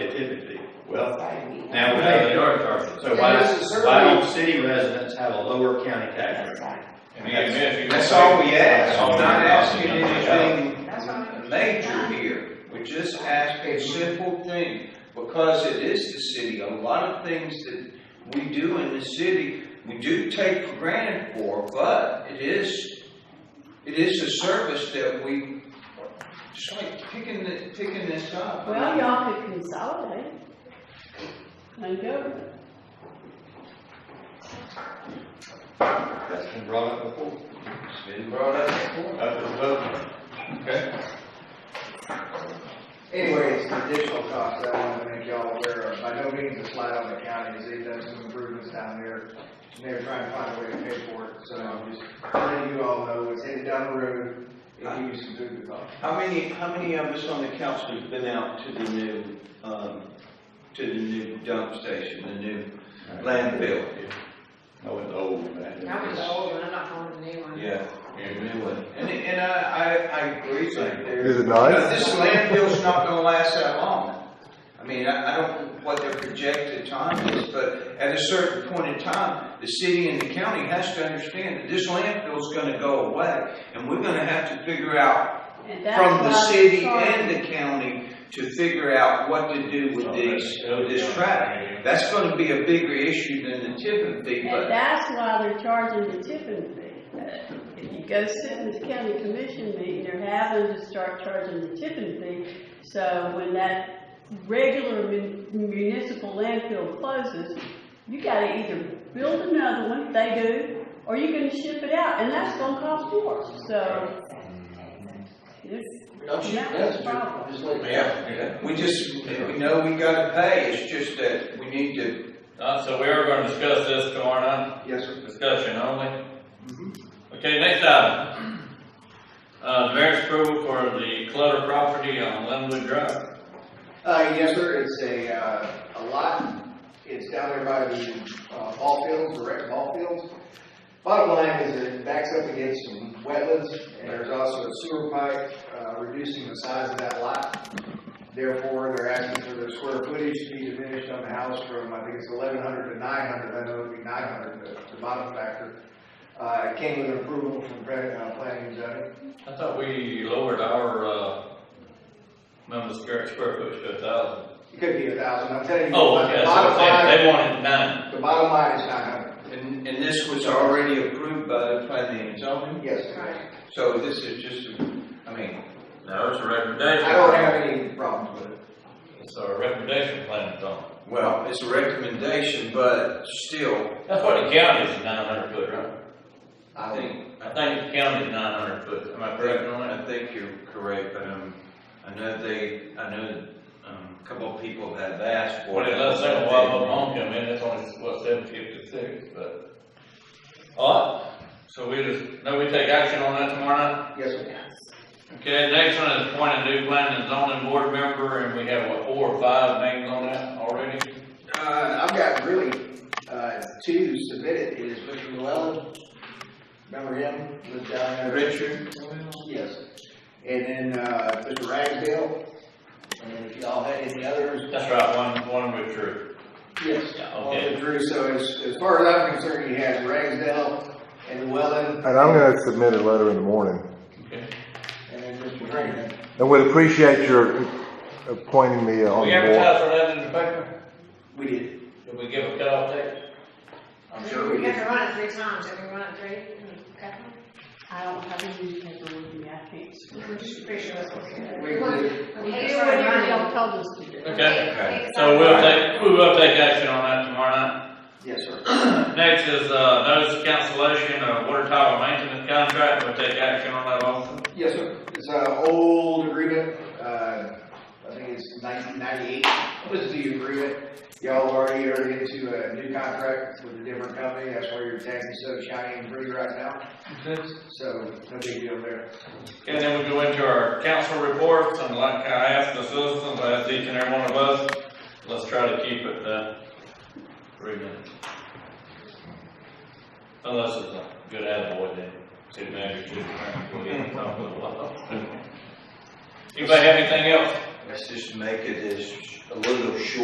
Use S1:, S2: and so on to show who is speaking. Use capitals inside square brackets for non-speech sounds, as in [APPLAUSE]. S1: So,
S2: Now, we have, they are charging, so why does, why don't city residents have a lower county tax rate?
S3: And if you-
S1: that's all we ask, I'm not asking
S4: That's what I'm-
S1: anything major here, we're just asking a simple thing, because it is the city, a lot of things that we do in the city, we do take for granted for, but it is, it is a service that we, just like picking, the- picking this up.
S5: Well, y'all could consolidate. And government.
S2: That's been brought up before,
S1: It's been brought up before.
S2: up to the vote.
S6: Anyway, it's an additional cost that I wanted to make y'all aware of. By no means a slight on the counties, they've done some improvements down there, and they're trying to find a way to pay for it, so I'm just letting you all know what's headed down the road, and give you some food for thought.
S1: How many, how many of us on the council have been out to the new, um, to the new dump station, the new landfill?
S2: No, it's old, but I think
S4: I was
S2: it's-
S4: old and I'm not going to new one.
S1: Yeah, the new one. And, and I, I, I agree with you there.
S7: Is it
S1: Now,
S7: nice?
S1: This landfill's not gonna last that long. I mean, I, I don't know what their projected time is, but at a certain point in time, the city and the county has to understand that this landfill's gonna go away, and we're gonna have to figure out
S5: And that's
S1: from the
S5: why they
S1: city
S5: charge-
S1: and the county to figure out what to do with these, with this traffic. That's gonna be a bigger issue than the tipping fee,
S5: And
S1: but
S5: that's why they're charging the tipping fee. Uh, If you go sit in the county commission meeting, they're having to start charging the tipping fee. So when that regular mun- municipal landfill closes, you gotta either build another one, if they do, or you're gonna ship it out, and that's gonna cost more, so. it's-
S8: Don't you,
S5: Yeah,
S8: that's
S5: no problem.
S8: just like.
S1: yeah, we just, we know we gotta pay, it's just that we need to,
S3: Uh, so we are gonna discuss this tomorrow night,
S6: Yes, sir.
S3: discussion only.
S1: Mm-hmm.
S3: Okay, next item. Uh, the mayor's approval for the clutter property on Linwood Drive.
S6: Uh, yes, sir, it's a, uh, a lot, it's down there by the, uh, ball fields, the rec ball fields. Bottom line is it backs up against some wetlands, and there's also a sewer pipe, uh, reducing the size of that lot. Therefore, they're asking for their square footage to be diminished on the house from, I think it's eleven hundred to nine hundred, I know it'd be nine hundred, the, the bottom factor. Uh, it came with approval from, pre- uh, planning and zoning.
S3: I thought we lowered our, uh, member square, square foot to a thousand.
S6: It could be a thousand, I'm telling you.
S3: Oh,
S6: but the
S3: okay,
S6: bottom
S3: so they,
S6: line-
S3: they wanted nine.
S6: The bottom line is nine hundred.
S1: and, and this was already approved by the planning and zoning,
S6: Yes,
S4: Right.
S1: so this is just, I mean,
S3: That was a recommendation.
S6: I don't have any problems with it.
S3: It's a recommendation plan, Tom.
S1: well, it's a recommendation, but still.
S3: That's what the county's nine hundred foot, right?
S1: I
S6: I think,
S1: think,
S3: I think the county's nine hundred foot, am I correct on that?
S1: I think you're correct, but, um, I know they, I know, um, a couple of people have asked for.
S3: Well,
S1: it.
S3: it does say a while ago, home come in, it's only, what, seven fifty-six, but. All right, so we just, no, we take action on that tomorrow night?
S6: yes, sir.
S3: Okay, next one is appoint a new planning and zoning board member, and we have, what, four or five names on that already?
S6: Uh, I've got really, uh, two submitted, it is Mr. Llewellyn, remember him, lived down there?
S1: Richard?
S6: Yes. And then, uh, Mr. Ragsdale, and then if y'all had any others?
S3: That's right, one, one withdrew.
S6: Yes.
S3: Yeah,
S6: All
S3: okay.
S6: the Drew, so as, as far as I'm concerned, you had Ragsdale and Llewellyn,
S7: And I'm gonna submit a letter in the morning.
S3: Okay.
S6: and then Mr. Green.
S7: And would appreciate your appointing me on
S3: We
S7: the board.
S3: advertise for that in the paper?
S6: We did.
S3: Did we give a cutoff date?
S6: I'm sure we
S4: We
S6: did.
S4: have to run it three times, have we run it three? Okay.
S5: I don't have any paper with me, I can't.
S4: We're just pretty sure that's what Mm-hmm. we did.
S6: We did.
S4: We
S5: You
S4: did
S5: do
S4: start
S5: whatever
S4: running.
S5: y'all told us to do.
S3: Okay,
S1: Okay.
S3: so we'll take, we will take action on that tomorrow night.
S6: Yes, sir.
S3: Next is, uh, notice of cancellation of water tower maintenance contract, we'll take action on that also.
S6: Yes, sir. It's an old agreement, uh, I think it's nineteen ninety-eight was the agreement. Y'all already are into a new contract with a different company, that's why your tax is so shiny and pretty right now. So, no big deal there.
S3: Okay, then we go into our council reports, and like I asked the citizens, I asked each and every one of us, let's try to keep it, uh, three minutes. Unless it's a good attaboy, then, city manager, chief attorney, we'll get to talk a little while. [LAUGHS] Anybody have anything else?
S1: Let's just make it as a little short